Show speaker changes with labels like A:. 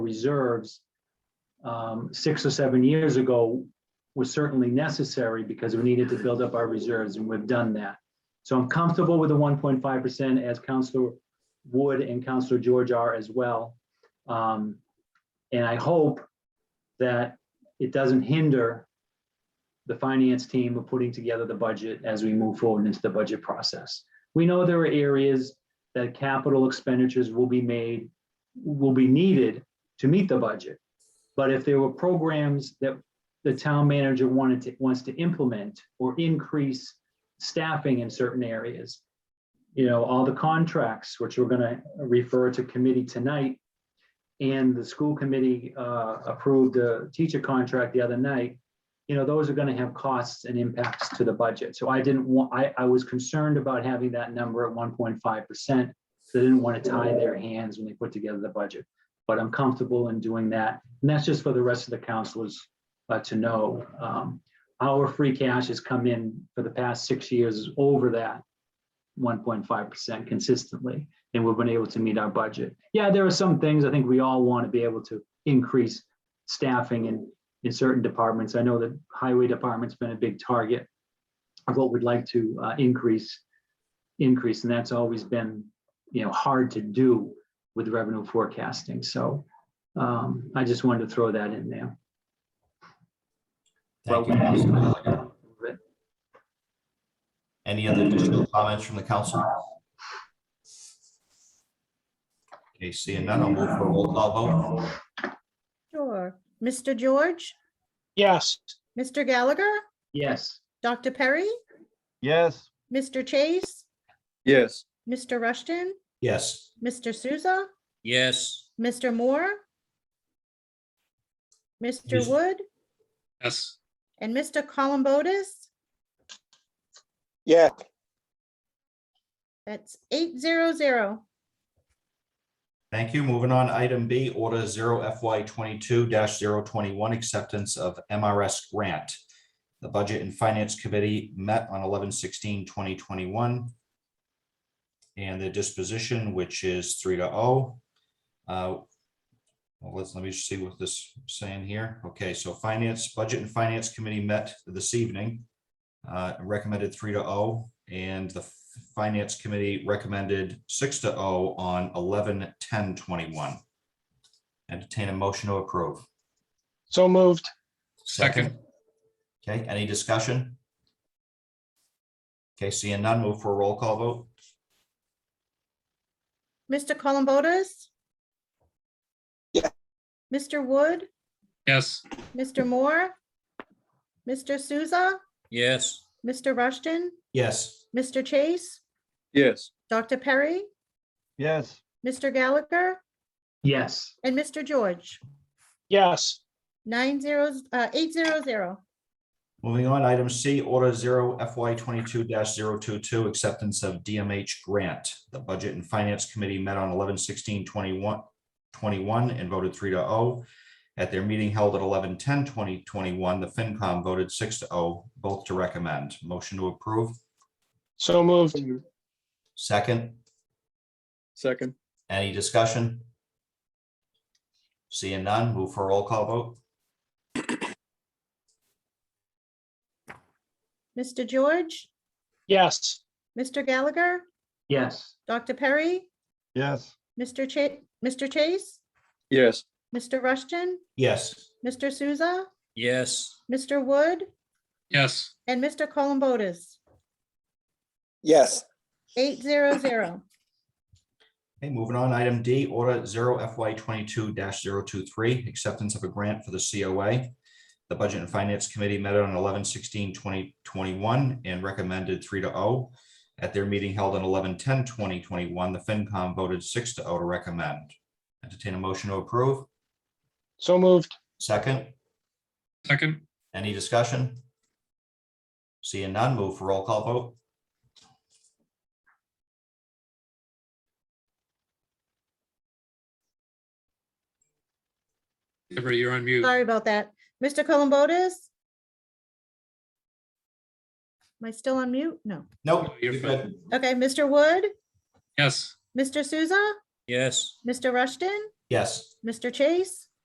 A: reserves um, six or seven years ago was certainly necessary because we needed to build up our reserves and we've done that. So I'm comfortable with the one point five percent as Counselor Wood and Counselor George are as well. Um, And I hope that it doesn't hinder the finance team of putting together the budget as we move forward into the budget process. We know there are areas that capital expenditures will be made, will be needed to meet the budget. But if there were programs that the town manager wanted to, wants to implement or increase staffing in certain areas, you know, all the contracts, which we're gonna refer to committee tonight, and the school committee uh, approved a teacher contract the other night, you know, those are gonna have costs and impacts to the budget. So I didn't want, I, I was concerned about having that number at one point five percent. They didn't want to tie their hands when they put together the budget, but I'm comfortable in doing that. And that's just for the rest of the counselors uh, to know. Um, Our free cash has come in for the past six years is over that one point five percent consistently, and we've been able to meet our budget. Yeah, there are some things I think we all want to be able to increase staffing and in certain departments. I know that highway department's been a big target of what we'd like to uh, increase, increase, and that's always been, you know, hard to do with revenue forecasting. So um, I just wanted to throw that in there.
B: Thank you. Counselor. Any other additional comments from the council? Okay, seeing none, I'll move for a roll call vote.
C: Sure. Mr. George,
D: Yes.
C: Mr. Gallagher,
A: Yes,
C: Dr. Perry,
E: Yes.
C: Mr. Chase,
E: Yes.
C: Mr. Rushton,
B: Yes.
C: Mr. Souza,
F: Yes.
C: Mr. Moore, Mr.
B: Yes.
C: Wood,
F: Yes.
C: and Mr. Columbotus.
E: Yeah.
C: That's eight zero zero.
B: Thank you. Moving on, item B, order zero FY twenty-two 21 acceptance of MRS grant. The Budget and Finance Committee met on 2021, And the disposition, which is three to oh. Uh, Well, let's, let me see what this is saying here. Okay, so Finance, Budget and Finance Committee met this evening. uh, Recommended three to oh, and the Finance Committee recommended six to oh on 11-10-21. Entertain a motion to approve.
D: So moved.
F: Second.
B: Okay, any discussion? Okay, seeing none, move for a roll call vote.
C: Mr. Columbotus?
E: Yeah.
C: Mr. Wood,
F: Yes.
C: Mr. Moore, Mr. Souza,
F: Yes.
C: Mr. Rushton,
B: Yes.
C: Mr. Chase,
E: Yes.
C: Dr. Perry,
E: Yes.
C: Mr. Gallagher,
A: yes,
C: and Mr. George.
D: Yes.
C: Nine zeros, uh, eight zero zero.
B: Moving on, item C, order zero FY twenty-two 22 acceptance of DMH grant. The Budget and Finance Committee met on 11-16-21 21 and voted three to oh. At their meeting held at 11-10-2021, the FinCom voted six to oh, both to recommend. Motion to approve.
D: So moved.
B: Second,
E: Second.
B: any discussion? Seeing none, move for a roll call vote.
C: Mr. George,
D: Yes.
C: Mr. Gallagher,
A: yes,
C: Dr. Perry,
E: Yes.
C: Mr. Cha- Mr. Chase,
E: Yes.
C: Mr. Rushton,
B: Yes.
C: Mr. Souza,
F: Yes.
C: Mr. Wood,
F: Yes.
C: and Mr. Columbotus.
E: Yes.
C: Eight zero zero.
B: Okay, moving on, item D, order zero FY twenty-two 23 acceptance of a grant for the COA. The Budget and Finance Committee met on 11-16-2021 and recommended three to oh. At their meeting held on 11-10-2021, the FinCom voted six to oh to recommend. Entertain a motion to approve.
D: So moved.
B: Second,
F: Second.
B: any discussion? Seeing none, move for roll call vote.
F: Deborah, you're on mute.
C: Sorry about that. Mr. Columbotus? Am I still on mute? No.
B: Nope.
F: You're
B: you're
F: fine.
B: good.
C: Okay, Mr. Wood,
F: Yes.
C: Mr. Souza,
F: Yes.
C: Mr. Rushton,
B: Yes.
C: Mr. Chase,